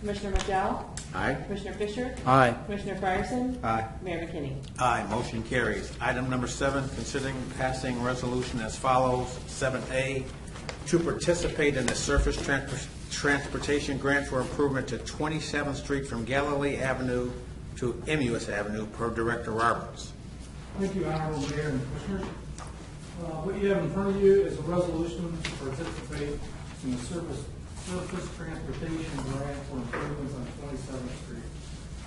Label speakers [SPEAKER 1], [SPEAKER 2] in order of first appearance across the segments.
[SPEAKER 1] Commissioner McDowell?
[SPEAKER 2] Aye.
[SPEAKER 1] Commissioner Fisher?
[SPEAKER 3] Aye.
[SPEAKER 1] Commissioner Fryerson?
[SPEAKER 2] Aye.
[SPEAKER 1] Mayor McKinney?
[SPEAKER 2] Aye, motion carries. Item number seven, considering passing resolution as follows. Seven A, to participate in the surface trans- transportation grant for improvement to Twenty-seventh Street from Galilee Avenue to Emus Avenue per Director Roberts.
[SPEAKER 4] Thank you, Honorable Mayor and Commissioners. Uh, What you have in front of you is a resolution to participate in the surface, surface transportation grant for improvements on Twenty-seventh Street.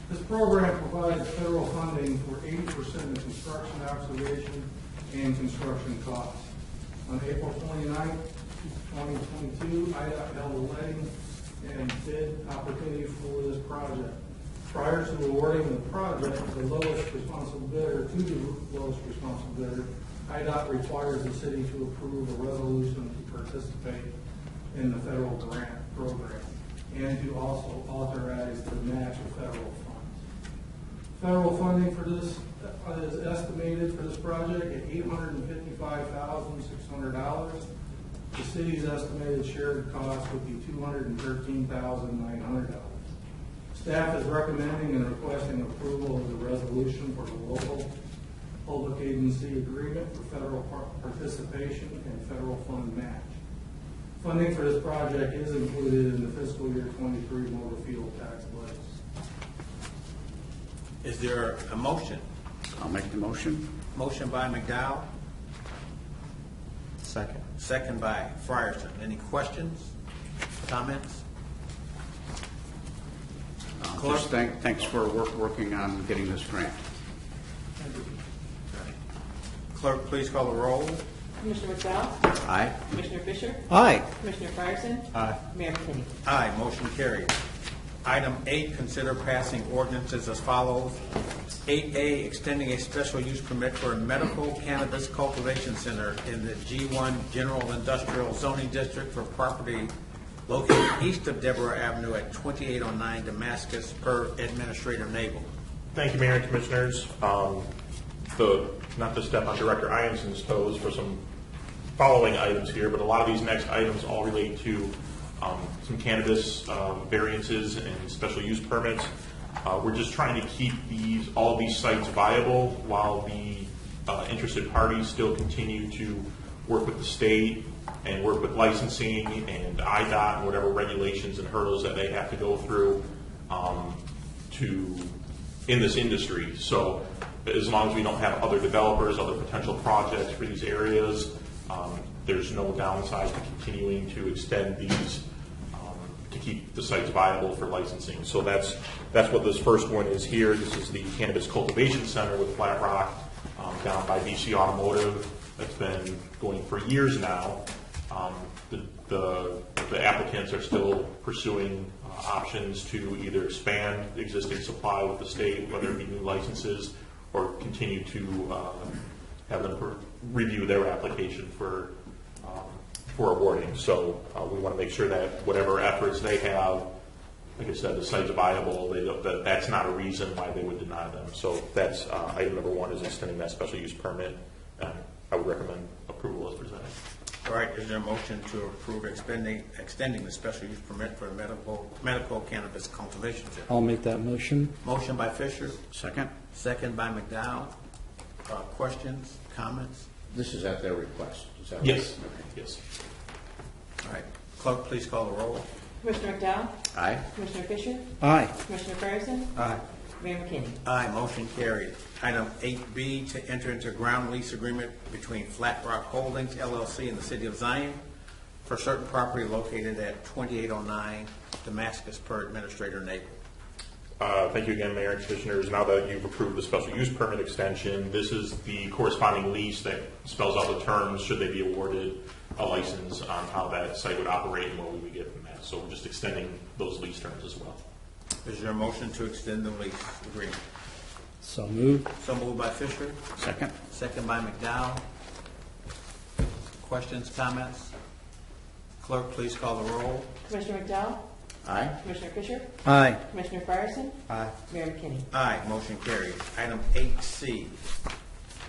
[SPEAKER 4] This program provides federal funding for eighty percent of construction observation and construction costs. On April 29, twenty-twenty-two, IDOT held a letting and bid opportunity for this project. Prior to awarding the project, the lowest responsible bidder, to the lowest responsible bidder, IDOT requires the city to approve a resolution to participate in the federal grant program and to also authorize the match of federal funds. Federal funding for this uh, is estimated for this project at eight hundred and fifty-five thousand, six hundred dollars. The city's estimated shared cost would be two hundred and thirteen thousand, nine hundred dollars. Staff is recommending and requesting approval of the resolution for the local public agency agreement for federal par- participation and federal fund match. Funding for this project is included in the fiscal year twenty-three motor fuel tax budget.
[SPEAKER 2] Is there a motion?
[SPEAKER 3] I'll make the motion.
[SPEAKER 2] Motion by McDowell,
[SPEAKER 3] Second.
[SPEAKER 2] second by Frierson. Any questions, comments? Clerk?
[SPEAKER 3] Uh, Just thank, thanks for work, working on getting this grant.
[SPEAKER 2] Clerk, please call the roll.
[SPEAKER 1] Commissioner McDowell?
[SPEAKER 3] Aye.
[SPEAKER 1] Commissioner Fisher?
[SPEAKER 3] Aye.
[SPEAKER 1] Commissioner Fryerson?
[SPEAKER 3] Aye.
[SPEAKER 1] Mayor McKinney?
[SPEAKER 2] Aye, motion carried. Item eight, consider passing ordinances as follows. Eight A, extending a special use permit for a medical cannabis cultivation center in the G one General Industrial Zoning District for property located east of Deborah Avenue at twenty-eight oh nine Damascus per Administrator Nabel.
[SPEAKER 5] Thank you, Mayor and Commissioners. Um, The, not to step on Director Iamson's toes for some following items here, but a lot of these next items all relate to um, some cannabis um, variances and special use permits. Uh, We're just trying to keep these, all of these sites viable while the uh, interested parties still continue to work with the state and work with licensing and IDOT and whatever regulations and hurdles that they have to go through. um, to, in this industry. So as long as we don't have other developers, other potential projects for these areas, um, there's no downside to continuing to extend these, um, to keep the sites viable for licensing. So that's, that's what this first one is here. This is the Cannabis Cultivation Center with Flat Rock um, down by BC Automotive. That's been going for years now. Um, the- The the applicants are still pursuing uh, options to either expand existing supply with the state, whether it be new licenses, or continue to uh, have them per- review their application for, um, for awarding. So uh, we want to make sure that whatever efforts they have, like I said, the site's viable, they don't, that, that's not a reason why they would deny them. So that's, uh, item number one is extending that special use permit. Uh, I would recommend approval as presented.
[SPEAKER 2] All right, is there a motion to approve extending, extending the special use permit for the medical, medical cannabis cultivation center?
[SPEAKER 6] I'll make that motion.
[SPEAKER 2] Motion by Fisher,
[SPEAKER 3] Second?
[SPEAKER 2] Second by McDowell. Uh, Questions, comments?
[SPEAKER 3] This is at their request, is that right?
[SPEAKER 5] Yes, yes.
[SPEAKER 2] All right, clerk, please call the roll.
[SPEAKER 1] Commissioner McDowell?
[SPEAKER 3] Aye.
[SPEAKER 1] Commissioner Fisher?
[SPEAKER 6] Aye.
[SPEAKER 1] Commissioner Fryerson?
[SPEAKER 2] Aye.
[SPEAKER 1] Mayor McKinney?
[SPEAKER 2] Aye, motion carried. Item eight B, to enter into ground lease agreement between Flat Rock Holdings LLC and the City of Zion for certain property located at twenty-eight oh nine Damascus per Administrator Nabel.
[SPEAKER 5] Uh, Thank you again, Mayor and Commissioners. Now that you've approved the special use permit extension, this is the corresponding lease that spells out the terms, should they be awarded a license on how that site would operate and what we would get from that. So we're just extending those lease terms as well.
[SPEAKER 2] Is there a motion to extend the lease agreement?
[SPEAKER 6] So moved.
[SPEAKER 2] So moved by Fisher,
[SPEAKER 3] Second?
[SPEAKER 2] second by McDowell. Questions, comments? Clerk, please call the roll.
[SPEAKER 1] Commissioner McDowell?
[SPEAKER 3] Aye.
[SPEAKER 1] Commissioner Fisher?
[SPEAKER 6] Aye.
[SPEAKER 1] Commissioner Fryerson?
[SPEAKER 3] Aye.
[SPEAKER 1] Mayor McKinney?
[SPEAKER 2] Aye, motion carried. Item eight C,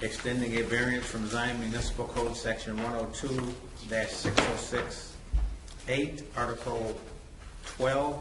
[SPEAKER 2] extending a variance from Zion Municipal Code Section one oh two six oh six eight, Article twelve,